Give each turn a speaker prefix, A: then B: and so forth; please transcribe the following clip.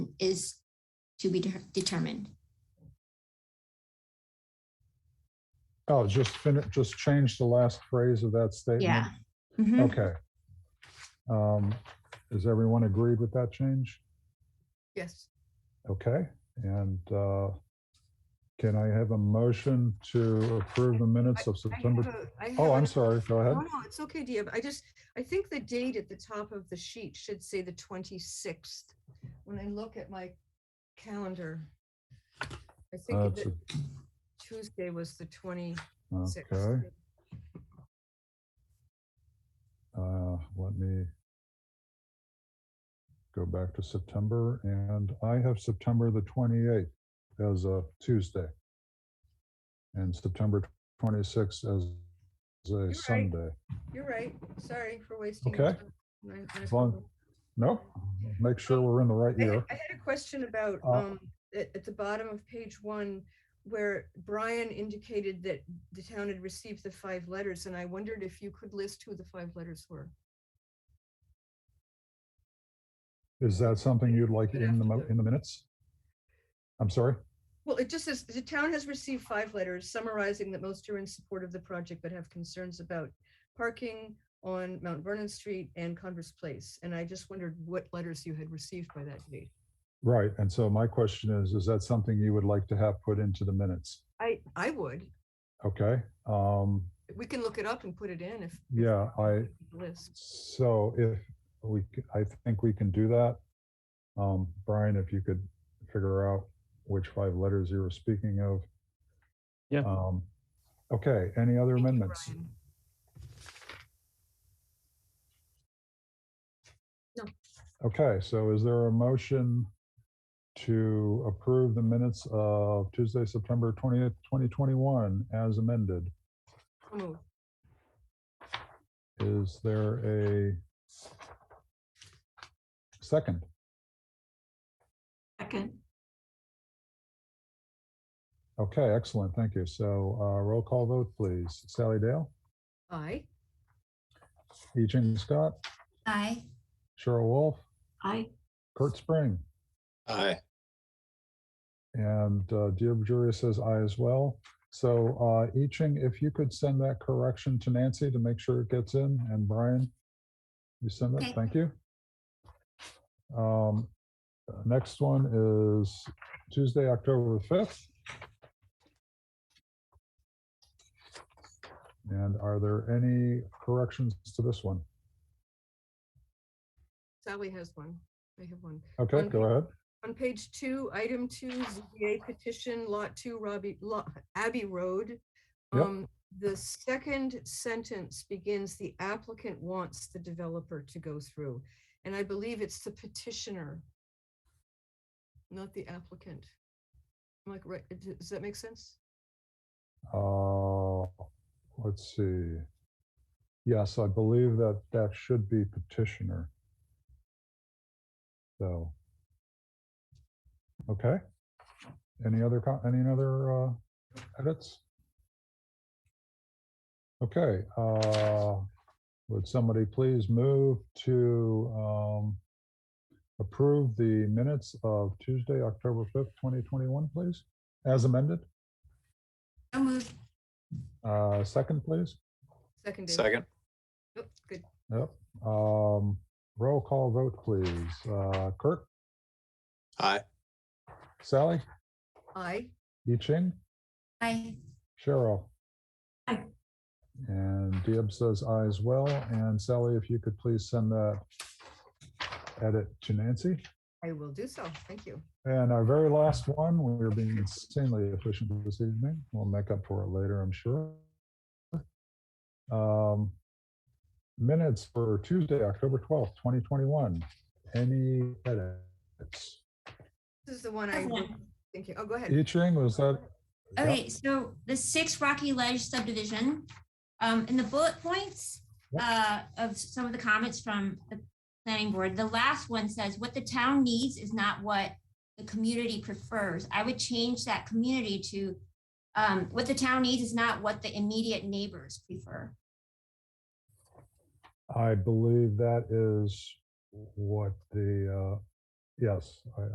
A: is to be de- determined.
B: Oh, just finish, just change the last phrase of that statement?
A: Yeah. Mhm.
B: Okay. Um, Is everyone agreed with that change?
C: Yes.
B: Okay, and uh, can I have a motion to approve the minutes of
C: I have
B: September?
C: a- I have
B: Oh, I'm
C: an-
B: sorry, go
C: No,
B: ahead.
C: no, it's okay, Dia. but I just, I think the date at the top of the sheet should say the 26th. When I look at my calendar, I
B: Uh,
C: think
B: it's
C: that Tuesday was the 26th.
B: a- Okay, uh, let me go back to September, and I have September the 28th as a Tuesday. And September 26th as a
C: right.
B: Sunday.
C: You're right. Sorry for wasting.
B: Okay.
C: your time. I- I-
B: As long- No, make sure we're in the right
C: Mm-hmm. I had
B: year.
C: I had a question about,
B: Uh,
C: um, at, at the bottom of page one, where Brian indicated that the town had received the five letters, and I wondered if you could list who the five letters were.
B: Is that something you'd like
C: Good
B: in the, mo-
C: afternoon.
B: in the minutes? I'm sorry?
C: Well, it just says, the town has received five letters summarizing that most are in support of the project but have concerns about parking on Mount Vernon Street and Converse Place. And I just wondered what letters you had received by that date.
B: Right, and so my question is, is that something you would like to have put into the minutes?
C: I, I would.
B: Okay, um,
C: We can look it up and put it in if. if
B: yeah, I,
C: the List.
B: so if we, c- I think we can do that. Um, Brian, if you could figure out which five letters you were speaking of.
D: Yeah.
B: Um, okay, any other
C: Thank you,
B: amendments?
C: Brian.
B: Okay, so is there a motion to approve the minutes of Tuesday, September 20th, 2021 as amended?
C: So moved.
B: Is there a second?
A: Second.
B: Okay, excellent, thank you. So uh, roll call vote, please. Sally Dale,
C: Aye.
B: E. Jean Scott,
A: Aye.
B: Cheryl Wolf,
A: Aye.
B: Kurt Spring,
E: Aye.
B: and uh, Deob Juria says aye as well. So uh, E. Jean, if you could send that correction to Nancy to make sure it gets in, and Brian, you send
A: Okay.
B: it, thank you. Um, Next one is Tuesday, October 5th. And are there any corrections to this one?
C: Sally has one. I have one.
B: Okay,
C: One.
B: go ahead.
C: On page two, item two, ZBA petition, lot two, Robbie, Lo- Abbey Road.
B: Yep.
C: Um, the second sentence begins, the applicant wants the developer to go through. And I believe it's the petitioner, not the applicant. Am I correct? Does- Does that make sense?
B: Uh, Let's see. Yes, I believe that that should be petitioner. So. Okay. Any other, co- any other uh, edits? Okay, uh, would somebody please move to um, approve the minutes of Tuesday, October 5th, 2021, please, as amended?
A: So moved.
B: Uh, Second, please.
C: Second. David.
E: Second.
C: Yep, Oh, Good.
B: Yep. Um, roll call vote, please. Uh, Kurt,
E: Aye.
B: Sally,
C: Aye.
B: Yi Ching,
A: Aye.
B: Cheryl.
A: Aye.
B: And Deob says aye as well. And Sally, if you could please send that edit to Nancy.
C: I will do so. Thank you.
B: And our very last one, we're being insanely efficient this evening. We'll make up for it later, I'm sure. Um, Minutes for Tuesday, October 12th, 2021. Any edits?
C: This is the one I was thinking. Oh, go ahead.
B: Yi Ching, was that? yeah,
A: Okay, so the six Rocky Ledge subdivision, um, in the bullet points uh, of some of the comments from the planning board, the last one says, what the town needs is not what the community prefers. I would change that community to, um, what the town needs is not what the immediate neighbors prefer.
B: I believe that is what the, uh, yes, I-